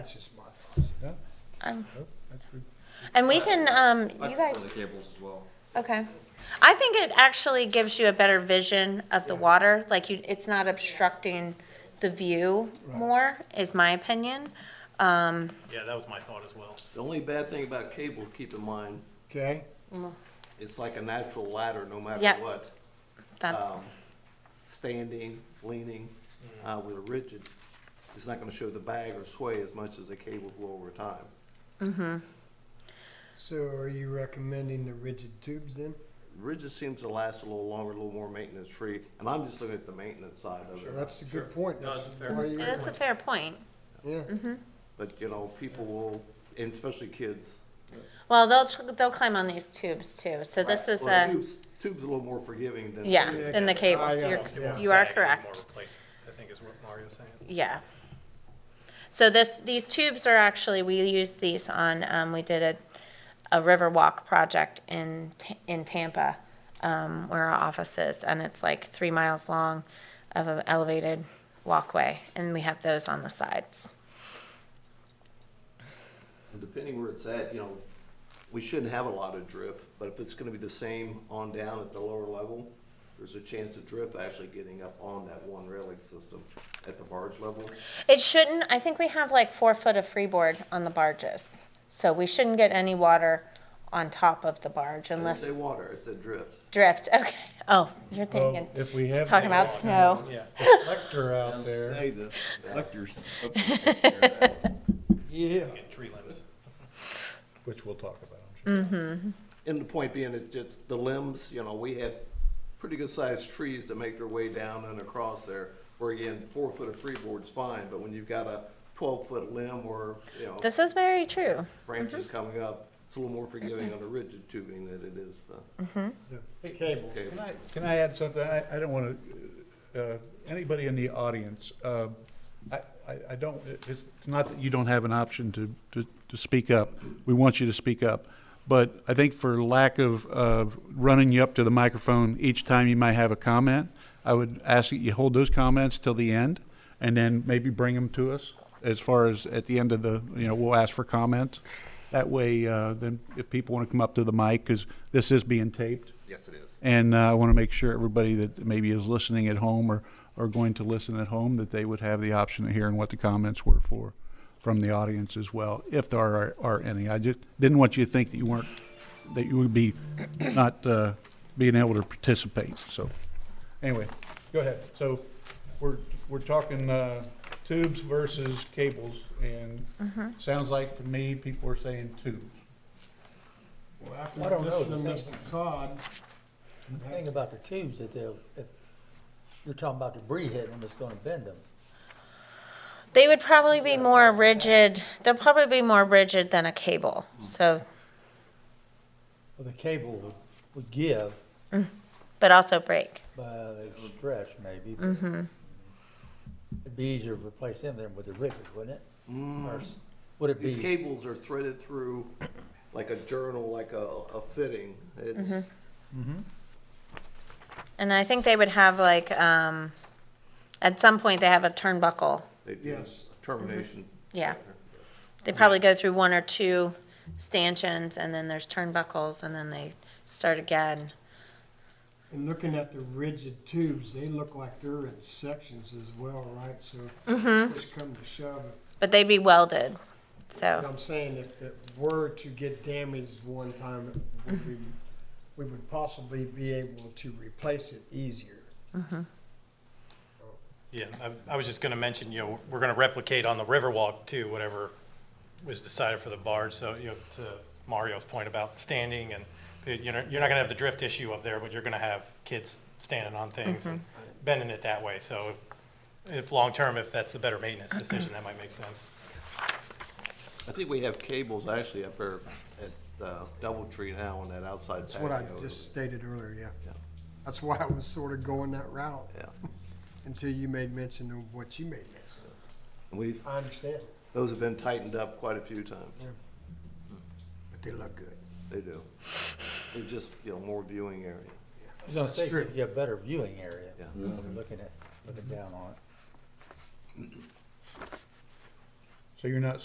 That's just my thoughts. Um, Nope, that's good. And we can, um, I you guys, prefer the cables as well. okay. I think it actually gives you a better vision of the water, like you, it's not obstructing the view more, is my opinion. Yeah, that was my thought as well. The only bad thing about cable, keep in mind, Okay, it's like a natural ladder, no matter Yeah. what. That's, Um, Standing, leaning, uh, with a rigid, it's not gonna show the bag or sway as much as a cable will over time. so are you recommending the rigid tubes then? Rigid seems to last a little longer, a little more maintenance-free, and I'm just looking at the maintenance side of Well, it. That's a good point. No, That's it's fair. why it you- is a Mm-hmm. fair point. Yeah, But, you know, people will, and especially kids. Well, they'll, tr- they'll climb on these tubes too, so this is Well, a, Tubes, tube's a little more forgiving than. yeah, Yeah. in the Ah, cables, yeah, yeah. you're, you are Saying we need more correct, replace- I think is what Mario's saying. yeah. So this, these tubes are actually, we used these on, um, we did a, a river walk project in, Ta- in Tampa, um, where our office is, and it's like three miles long of an elevated walkway, and we have those on the sides. And Depending where it's at, you know, we shouldn't have a lot of drift, but if it's gonna be the same on down at the lower level, there's a chance of drift actually getting up on that one railing system at the barge level. It shouldn't, I think we have like four foot of freeboard on the barges, so we shouldn't get any water on top of the barge I didn't unless. say water, I said drift. Drift. Okay. Oh, you're Well, thinking. If we He's have talking about snow. Yeah. Lecter out there, the yeah. Get tree limbs. which we'll talk about, I'm sure. And the point being, it's just the limbs, you know, we have pretty good sized trees that make their way down and across there. Where again, four foot of freeboard's fine, but when you've got a twelve foot limb or, you know, This Mm-hmm. is very true. branches coming up, it's a little more forgiving on the rigid tubing than it is the. Hey, Cable, Cable. can I, can I add something? I, I don't want to, uh, anybody in the audience, uh, I, I, I don't, it- it's, it's not that you don't have an option to, to, to speak up. We want you to speak up. But I think for lack of, of running you up to the microphone each time you might have a comment, I would ask that you hold those comments till the end and then maybe bring them to us as far as at the end of the, you know, we'll ask for comments. That way, uh, then if people want to come up to the mic, because this is being taped. Yes, it is. And uh, I want to make sure everybody that maybe is listening at home or, or going to listen at home, that they would have the option of hearing what the comments were for from the audience as well, if there are, are any. I just didn't want you to think that you weren't, that you would be not uh, being able to participate, so. Anyway, go ahead. So we're, we're talking uh, tubes versus cables, and sounds like to me, people are saying tubes. Well, I after don't know. listening to Mr. Todd, The thing about the tubes that they'll, if, you're talking about debris hitting them, it's gonna bend them. They would probably be more rigid. They'll probably be more rigid than a cable. So, Well, the cable would, would give but also break. by the stretch maybe. but It'd be easier to replace them than with the rigid, wouldn't it? Mm-hmm. Or s- Would it These be, cables are threaded through like a journal, like a, a fitting. It's, And I think they would have like, um, at some point they have a turnbuckle. it- Yes. Termination. Yeah. They probably go through one or two stanchions and then there's turnbuckles and then they start again. and looking at the rigid tubes, they look like they're in sections as well, right? So Mm-hmm. just come to shove, But they'd be welded. But So, I'm saying if it were to get damaged one time, it would be- we would possibly be able to replace it easier. Yeah, I, I was just gonna mention, you know, we're gonna replicate on the Riverwalk too, whatever was decided for the barge, so, you know, to Mario's point about standing and, you know, you're not gonna have the drift issue up there, but you're gonna have kids standing on things and Mm-hmm. bending it that way, so if, if, long-term, if that's the better maintenance decision, that might make sense. I think we have cables actually up there at uh, Doubletree now on that outside That's what I patio. just stated earlier, yeah. Yeah. That's why I was sort of going that route Yeah. until you made mention of what you made mention. And We've, I understand, those have been tightened up quite a few times. Hmm. but they look good. They do. They're just, you know, more viewing area. I was gonna say, true. you have better viewing area. Yeah. when you're Looking at, looking down on it. So you're not